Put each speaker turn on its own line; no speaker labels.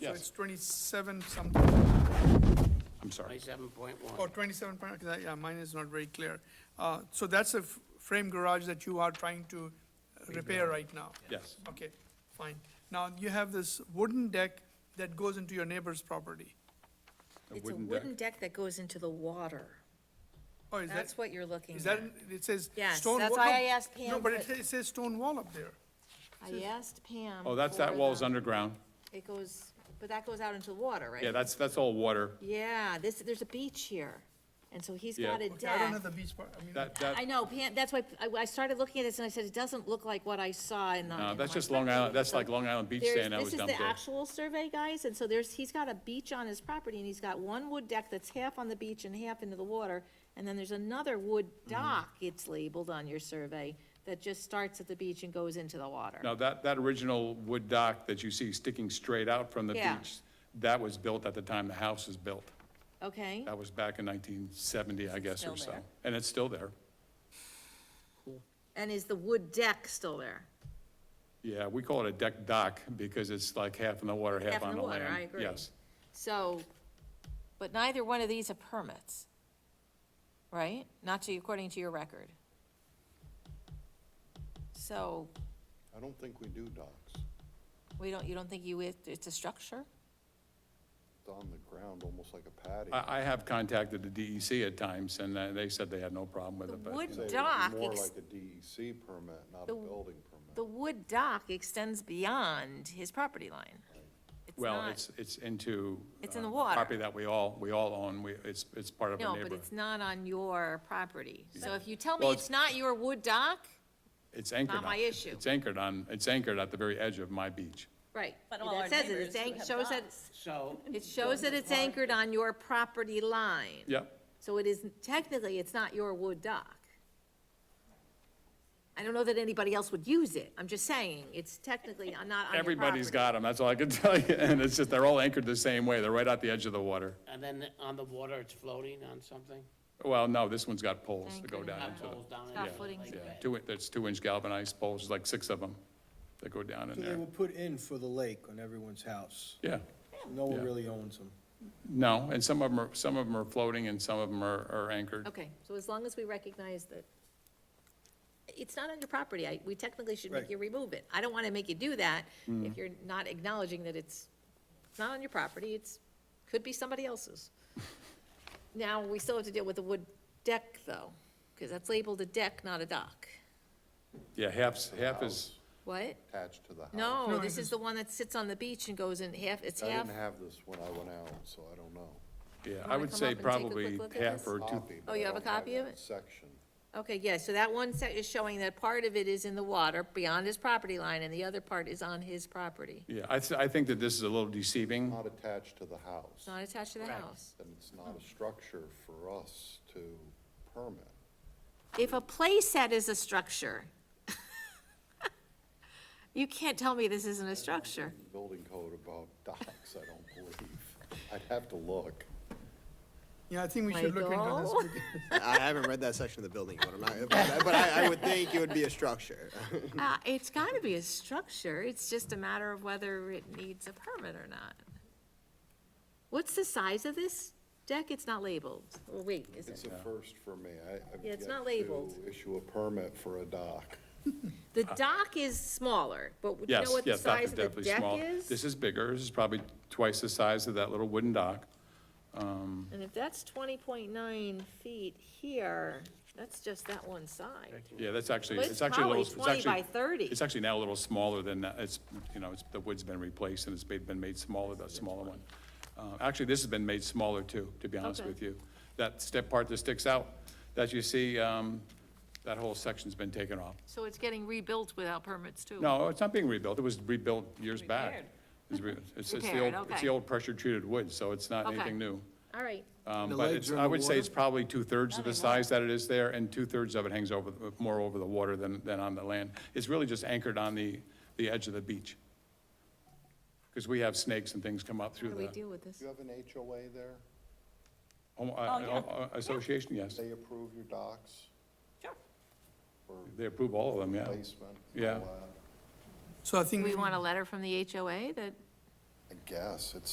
So
Yes.
it's 27 something,
I'm sorry.
Twenty-seven point
or
one.
27, point- okay, that- yeah, mine is not very clear. Uh, So that's a f- frame garage that you are trying to uh, repair right now?
Yes.
Okay, fine. Now, you have this wooden deck that goes into your neighbor's property.
It's a wooden deck that goes into the water.
Oh, is that,
That's what you're looking
is
at.
that, it says stone wall?
Yes, that's why
no,
I asked
No,
Pam
but
what-
it sa- it says stone wall up there.
I asked Pam.
Oh, that's, that
for
wall's
the-
underground.
It goes, but that goes out into the water, right?
Yeah, that's, that's all water.
Yeah, this, there's a beach here, and so he's got
Okay,
Yeah.
a
I don't
deck.
have the beach part, I mean,
That,
I
that,
know, Pam, that's why, I, I started looking at this and I said, it doesn't look like what I saw in the.
no,
in
that's
my
just Long
spreadsheet."
Island, that's
So
like Long Island beach
there's-
sand that was dumped
This is the
there.
actual survey, guys, and so there's, he's got a beach on his property, and he's got one wood deck that's half on the beach and half into the water, and then there's another wood
Mm-hmm.
dock, it's labeled on your survey, that just starts at the beach and goes into the water.
Now, that, that original wood dock that you see sticking straight out from the
Yeah.
beach, that was built at the time the house was built.
Okay,
That was back in 1970, I guess, or
still
so.
there.
And it's still there.
and is the wood deck still there?
Yeah, we call it a deck dock because it's like half in the water, half
Half in
on
the
the land.
water, I agree.
Yes.
So, but neither one of these have permits, right? Not to, according to your record. So,
I don't think we do docks.
we don't, you don't think you, it's a structure?
It's on the ground, almost like a patio.
I, I have contacted the DEC at times and uh, they said they had no problem with
The
it, but.
wood
Say it'd be
dock,
More
ex-
like a DEC permit, not a
The-
building permit.
the wood dock extends beyond his property line. It's
Well,
not-
it's, it's into.
It's in
uh,
the water.
Property that we all, we all own, we, it's, it's part of a
No,
neighborhood.
but it's not on your property. So if you tell me
Well,
it's not your wood dock,
It's anchored on.
my issue.
It's anchored on, it's anchored at the very edge of my beach.
right.
But all our
That says it, it's
neighbors
anch-
who have
shows that,
So,
it shows that it's anchored on your property line.
Yep,
So it is, technically, it's not your wood dock. I don't know that anybody else would use it. I'm just saying, it's technically not on your property.
everybody's got them, that's all I can tell you, and it's just, they're all anchored the same way, they're right at the edge of the water.
and then on the water, it's floating on something?
Well, no, this one's got poles that go
Anchored
down
Got
into
poles down in
got
it,
footings
like
the, yeah,
that.
two, there's two inch galvanized poles, like six of them, that go down in
So They
there.
were put in for the lake on everyone's house.
Yeah,
No one
Yeah.
really owns them.
no, and some of them are, some of them are floating and some of them are, are anchored.
Okay, so as long as we recognize that it's not on your property, I, we technically should make
Right.
you remove it. I don't want to make you do that if you're not acknowledging that it's, it's not on your property, it's, could be somebody else's. Now, we still have to deal with the wood deck, though, because that's labeled a deck, not a dock.
Yeah, half, half is,
What?
Attached to the house.
No,
No,
this
this
is the one that sits on the beach and goes in half, it's
Oh, I
half,
didn't have this when I went out, so I don't know.
yeah, I
wanna
would
come
say
up and take a quick
probably
look at
half
this?
or two,
Copy,
Oh,
but
you
I
have a
don't have
copy of
that
it?
Section.
okay, yeah, so that one set is showing that part of it is in the water beyond his property line, and the other part is on his property,
yeah, I, th- I think that this is a little deceiving.
Not attached to the house.
It's not attached to the house.
And it's not a structure for us to permit.
If a playset is a structure, you can't tell me this isn't a structure.
Building code about docks, I don't believe. I'd have to look.
yeah, I think we should look into this.
Michael?
because-
I haven't read that section of the building code, I'm not, but, but I, I would think it would be a structure.
Uh, it's gotta be a structure, it's just a matter of whether it needs a permit or not. What's the size of this deck? It's not labeled. Well, wait, is
It's
it?
a first for me. I, I've
Yeah, it's
yet
not labeled.
to Issue a permit for a dock.
The dock is smaller, but do you
Yes,
know what the
yes, dock
size
is
of the
definitely
deck
small.
is?
This is bigger, this is probably twice the size of that little wooden dock. Um,
And if that's twenty point nine feet here, that's just that one side.
Yeah, that's actually,
Well, it's
it's actually a little.
probably 20
actually-
by 30.
It's actually now a little smaller than that, it's, you know, it's, the wood's been replaced and it's been been made smaller, that smaller one. Uh, Actually, this has been made smaller too, to be honest
Okay.
with you. That step part that sticks out, that you see, um, that whole section's been taken off.
So it's getting rebuilt without permits too?
No, it's not being rebuilt, it was rebuilt years back. It's re- It's, it's the
Repaired,
old, it's
okay.
the old pressure-treated wood, so it's not
Okay.
anything new.
All right,
Um,
The
But
legs
it's,
are in
I
the
would say it's
water?
probably two-thirds of the size that it is there, and two-thirds of it hangs over, more over the water than, than on the land. It's really just anchored on the, the edge of the beach. Because we have snakes and things come up
how
through
do we
the
deal with this?
Do you have an HOA there?
Homo- uh,
Oh,
uh, association, yes.
They approve your docks
They approve all of them, yeah.
placement? all
Yeah.
that?
So I think.
Do we
we-
want a letter from the HOA that
I guess, it's